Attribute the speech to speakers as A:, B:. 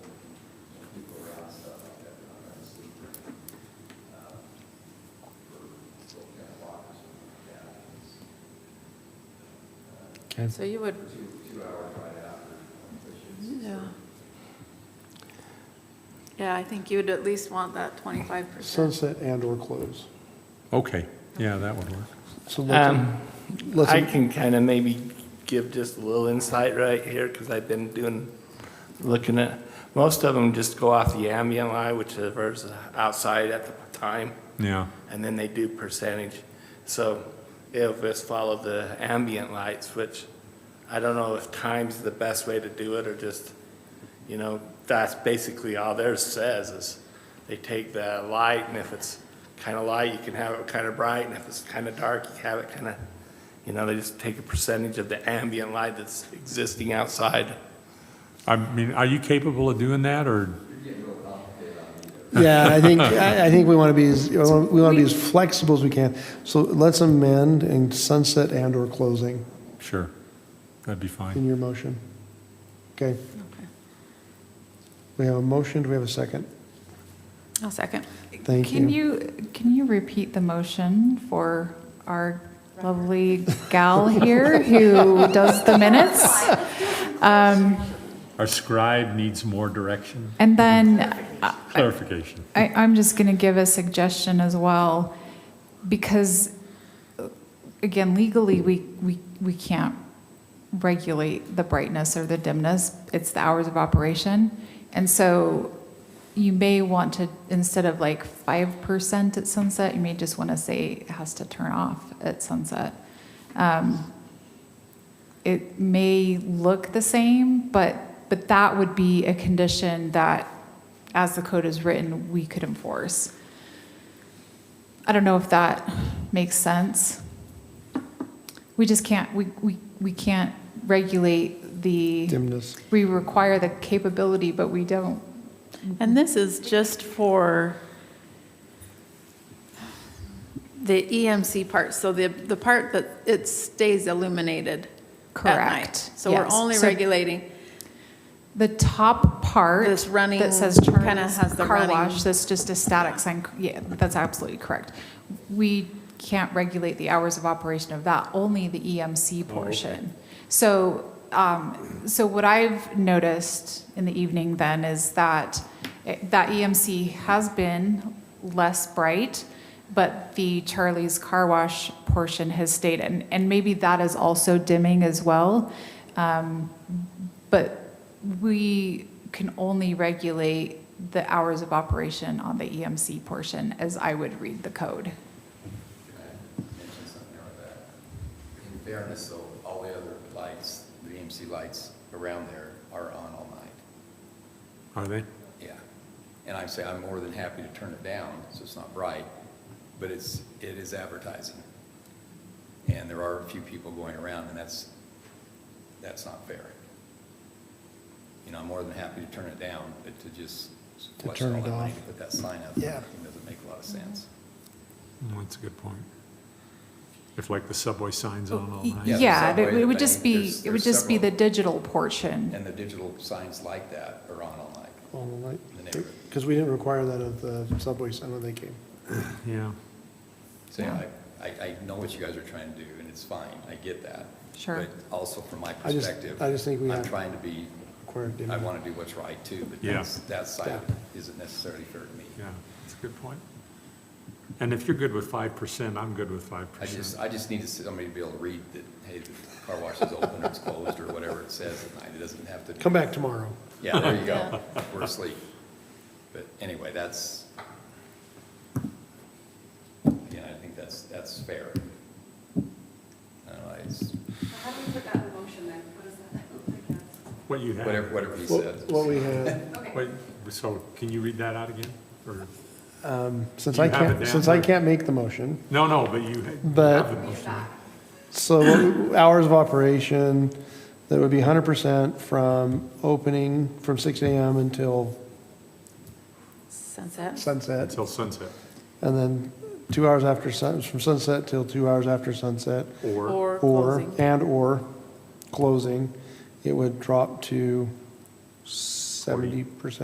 A: Okay.
B: So you would, yeah. Yeah, I think you'd at least want that 25%.
C: Sunset and/or close.
A: Okay, yeah, that would work.
C: So let's,
D: Um,
C: let's-
D: I can kind of maybe give just a little insight right here, because I've been doing, looking at, most of them just go off the ambient line, which is outside at the time,
A: Yeah,
D: and then they do percentage. So it'll just follow the ambient lights, which I don't know if time's the best way to do it, or just, you know, that's basically all theirs says, is they take the light, and if it's kind of light, you can have it kind of bright, and if it's kind of dark, you have it kind of, you know, they just take a percentage of the ambient light that's existing outside.
A: I mean, are you capable of doing that, or,
C: yeah, I think, I I think we want to be, as we want to be as flexible as we can. So let's amend and sunset and/or closing
A: sure, that'd be fine.
C: in your motion. Okay,
B: Okay.
C: we have a motion, do we have a second?
B: I'll second.
C: Thank
E: Can
C: you.
E: you, can you repeat the motion for our lovely gal here who does the minutes? Um,
A: Our scribe needs more direction,
E: And then
F: Uh,
E: I-
A: clarification.
E: I, I'm just going to give a suggestion as well, because, uh, again, legally, we, we, we can't regulate the brightness or the dimness. It's the hours of operation. And so you may want to, instead of like 5% at sunset, you may just want to say it has to turn off at sunset. Um, It may look the same, but, but that would be a condition that, as the code is written, we could enforce. I don't know if that makes sense. We just can't, we, we, we can't regulate the,
C: Dimness.
E: we require the capability, but we don't
B: And this is just for the EMC part, so the, the part that it stays illuminated at night.
E: Correct,
B: So we're
E: yes.
B: only
E: So-
B: regulating,
E: The top part.
B: This running
E: That says turn
B: kinda
E: is
B: has the
E: car
B: running-
E: wash, that's just a static sign, yeah, that's absolutely correct. We can't regulate the hours of operation of that, only the EMC portion. So, um, so what I've noticed in the evening then is that, it- that EMC has been less bright, but the Charlie's Car Wash portion has stayed, and, and maybe that is also dimming as well. Um, but we can only regulate the hours of operation on the EMC portion, as I would read the code.
F: mention something about that. In fairness, though, all the other lights, the EMC lights around there are on all night,
A: Are they?
F: yeah. And I say I'm more than happy to turn it down, so it's not bright, but it's, it is advertising. And there are a few people going around, and that's, that's not fair. You know, I'm more than happy to turn it down, but to just
C: To
F: watch
C: turn
F: all
C: it
F: that money
C: off.
F: to put that sign up,
C: Yeah.
F: it doesn't make a lot of sense.
A: Mm, That's a good point. If like the subway signs on all
F: Yeah,
A: night.
F: there's
E: Yeah,
F: that
E: it
F: way
E: it would
F: that
E: just
F: they-
E: be,
F: there's-
E: it would
F: there's
E: just be the
F: several.
E: digital portion.
F: And the digital signs like that are on all night. The neighborhood.
C: Because we didn't require that of the subway sign when they came.
A: Yeah,
F: So yeah, I, I I know what you guys are trying to do, and it's fine, I get that.
E: Sure.
F: But also from my
C: I just-
F: perspective.
C: I just think we
F: I'm
C: have-
F: trying to be,
C: Required
F: I
C: dimness.
F: want to do what's right too, but
A: Yeah.
F: that's, that side
C: Yeah.
F: isn't necessarily fair to me.
A: yeah, that's a good point. And if you're good with 5%, I'm good with 5%.
F: I just, I just need to see somebody to be able to read that, hey, the car wash is open or it's closed or whatever it says at night. It doesn't have to.
C: Come back tomorrow.
F: Yeah, there you go. We're asleep. But anyway, that's, again, I think that's, that's fair. I don't know, it's
G: How do you put that in motion then? What does that look like?
A: What you have.
F: whatever, whatever he said.
C: What what we had,
A: Wait, so can you read that out again? Or,
C: um, since
A: You
C: I
A: have it
C: can't,
A: down
C: since I
A: there.
C: can't make the motion,
A: no, no, but you have
C: But-
A: the motion.
C: So what we- hours of operation, that would be 100% from opening from 6 AM until
B: sunset,
C: sunset,
A: Until sunset,
C: and then two hours after sun, from sunset till two hours after sunset,
A: or,
B: or
C: or,
B: closing.
C: and/or closing, it would drop to 70%.